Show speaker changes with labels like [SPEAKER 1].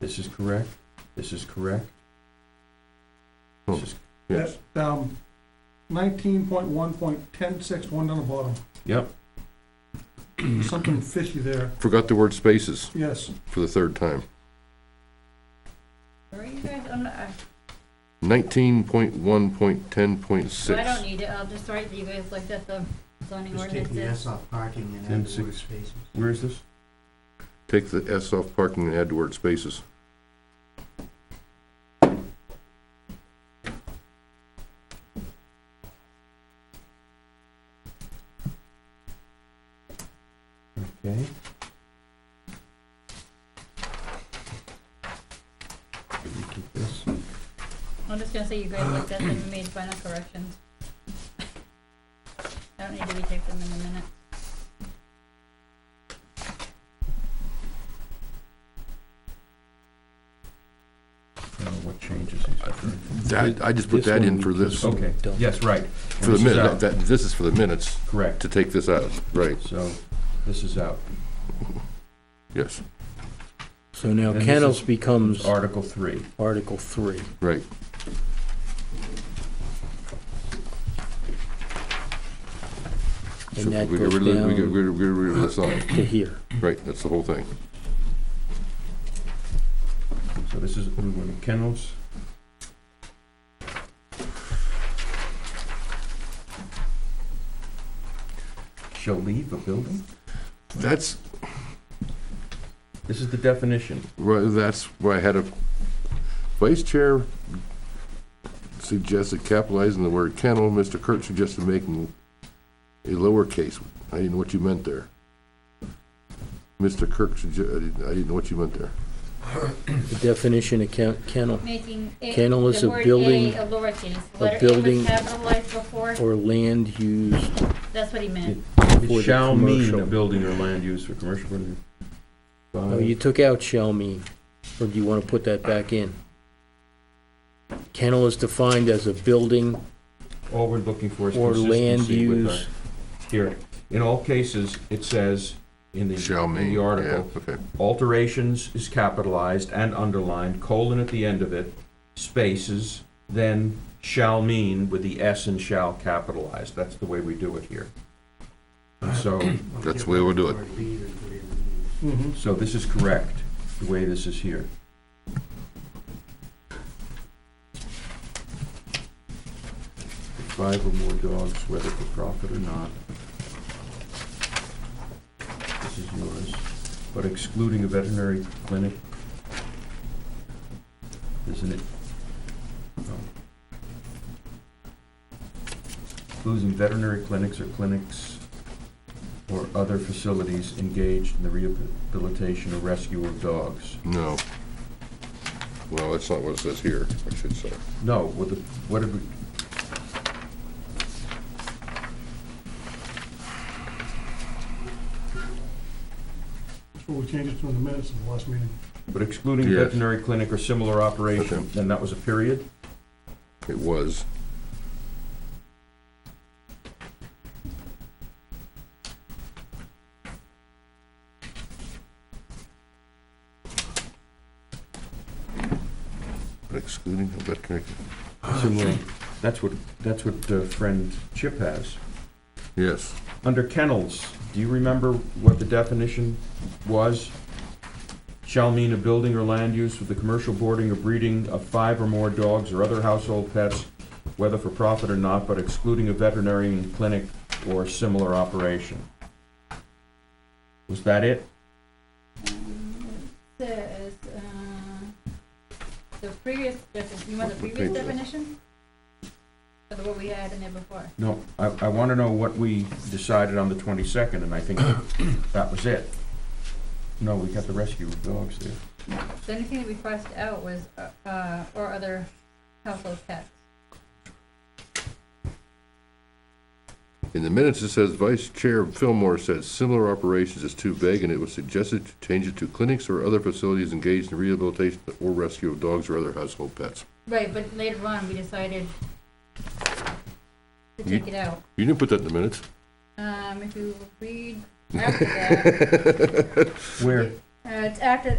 [SPEAKER 1] This is correct, this is correct.
[SPEAKER 2] Hmm.
[SPEAKER 1] This is,
[SPEAKER 3] That's,
[SPEAKER 1] yes,
[SPEAKER 3] um, nineteen point one point ten six, one down the bottom,
[SPEAKER 1] yep,
[SPEAKER 3] something fishy there,
[SPEAKER 2] Forgot the word spaces
[SPEAKER 3] yes.
[SPEAKER 2] for the third time.
[SPEAKER 4] Where are you guys, I'm not, I-
[SPEAKER 2] Nineteen point one point ten point
[SPEAKER 4] so I
[SPEAKER 2] six.
[SPEAKER 4] don't need it, I'll just write that you guys looked at the zoning
[SPEAKER 5] Just take the
[SPEAKER 4] ordinances.
[SPEAKER 5] S off parking and
[SPEAKER 1] Ten
[SPEAKER 5] add the word
[SPEAKER 1] six.
[SPEAKER 5] spaces.
[SPEAKER 1] where is this?
[SPEAKER 2] Take the S off parking and add the word spaces.
[SPEAKER 1] Okay. Let me keep this.
[SPEAKER 4] I'm just gonna say you guys looked at them and made final corrections. I don't need to retake them in a minute.
[SPEAKER 1] I don't know what changes he's referring to.
[SPEAKER 2] That, I just put that in for this, for
[SPEAKER 1] Okay, yes, right.
[SPEAKER 2] the
[SPEAKER 1] This is out.
[SPEAKER 2] minute, that, this is for the minutes,
[SPEAKER 1] Correct,
[SPEAKER 2] to take this out, right,
[SPEAKER 1] so this is out.
[SPEAKER 2] yes,
[SPEAKER 6] So now
[SPEAKER 1] And this
[SPEAKER 6] kennels
[SPEAKER 1] is-
[SPEAKER 6] becomes
[SPEAKER 1] Article three.
[SPEAKER 6] Article three.
[SPEAKER 2] right. So
[SPEAKER 6] And that
[SPEAKER 2] we get
[SPEAKER 6] goes
[SPEAKER 2] rid of the- We get
[SPEAKER 6] down
[SPEAKER 2] rid of, get rid of this line,
[SPEAKER 6] to here.
[SPEAKER 2] right, that's the whole thing.
[SPEAKER 1] So this is, we're going to kennels. Shall leave a building?
[SPEAKER 2] That's,
[SPEAKER 1] This is the definition.
[SPEAKER 2] Right, that's why I had a, Vice Chair suggested capitalizing the word kennel, Mr. Kurt suggested making a lowercase, I didn't know what you meant there. Mr. Kirk sugge- I didn't, I didn't know what you meant there.
[SPEAKER 6] The definition of ken- kennel
[SPEAKER 4] Making it,
[SPEAKER 6] Kennel is
[SPEAKER 4] the
[SPEAKER 6] a
[SPEAKER 4] word A
[SPEAKER 6] building-
[SPEAKER 4] a lowercase, letter A was
[SPEAKER 6] building-
[SPEAKER 4] capitalized before,
[SPEAKER 6] or land used
[SPEAKER 4] that's what he meant.
[SPEAKER 6] For the
[SPEAKER 1] It shall mean a
[SPEAKER 6] commercial.
[SPEAKER 1] building or land used for commercial. purposes.
[SPEAKER 6] Oh,
[SPEAKER 1] By-
[SPEAKER 6] you took out shall mean, or do you want to put that back in? Kennel is defined as a building
[SPEAKER 1] All we're looking for is
[SPEAKER 6] or land
[SPEAKER 1] consistency with
[SPEAKER 6] use.
[SPEAKER 1] our, here, in all cases, it says in the,
[SPEAKER 2] Shall
[SPEAKER 1] in
[SPEAKER 2] mean,
[SPEAKER 1] the
[SPEAKER 2] yeah,
[SPEAKER 1] article,
[SPEAKER 2] okay.
[SPEAKER 1] alterations is capitalized and underlined, colon at the end of it, spaces, then shall mean with the S and shall capitalized. That's the way we do it here. And So,
[SPEAKER 2] That's the way we'll do it.
[SPEAKER 5] Or leave it, whatever it is.
[SPEAKER 3] Mm-hmm.
[SPEAKER 1] so this is correct, the way this is here. Five or more dogs, whether for profit or not. This is yours, but excluding a veterinary clinic. Isn't it? No. Excluding veterinary clinics or clinics or other facilities engaged in the rehabilitation or rescue of dogs.
[SPEAKER 2] No. Well, that's not what it says here, I should say.
[SPEAKER 1] No, what the, what did we?
[SPEAKER 3] That's what we changed it to in the minutes of the last meeting.
[SPEAKER 1] But excluding
[SPEAKER 2] Yes.
[SPEAKER 1] veterinary clinic or similar operation,
[SPEAKER 2] Okay.
[SPEAKER 1] then that was a period?
[SPEAKER 2] It was. Excluding the veterinary,
[SPEAKER 1] Similar, that's what, that's what uh, friend Chip has.
[SPEAKER 2] yes,
[SPEAKER 1] Under kennels, do you remember what the definition was? Shall mean a building or land use for the commercial boarding or breeding of five or more dogs or other household pets, whether for profit or not, but excluding a veterinary clinic or similar operation. Was that it?
[SPEAKER 4] Um, it Says, uh, the previous, definition- you want the previous
[SPEAKER 2] Repeat that.
[SPEAKER 4] definition? Or the one we had in there before?
[SPEAKER 1] No, I, I wanna know what we decided on the twenty-second, and I think that was it. No, we got the rescue of dogs there.
[SPEAKER 4] The only thing that we crossed out was, uh, uh, or other household pets.
[SPEAKER 2] in the minutes it says Vice Chair Fillmore said similar operations is too vague and it was suggested to change it to clinics or other facilities engaged in rehabilitation or rescue of dogs or other household pets.
[SPEAKER 4] Right, but later on, we decided to
[SPEAKER 2] You-
[SPEAKER 4] take it out.
[SPEAKER 2] You didn't put that in the minutes.
[SPEAKER 4] Um, if you read after that,
[SPEAKER 1] Where?
[SPEAKER 4] uh, it's after,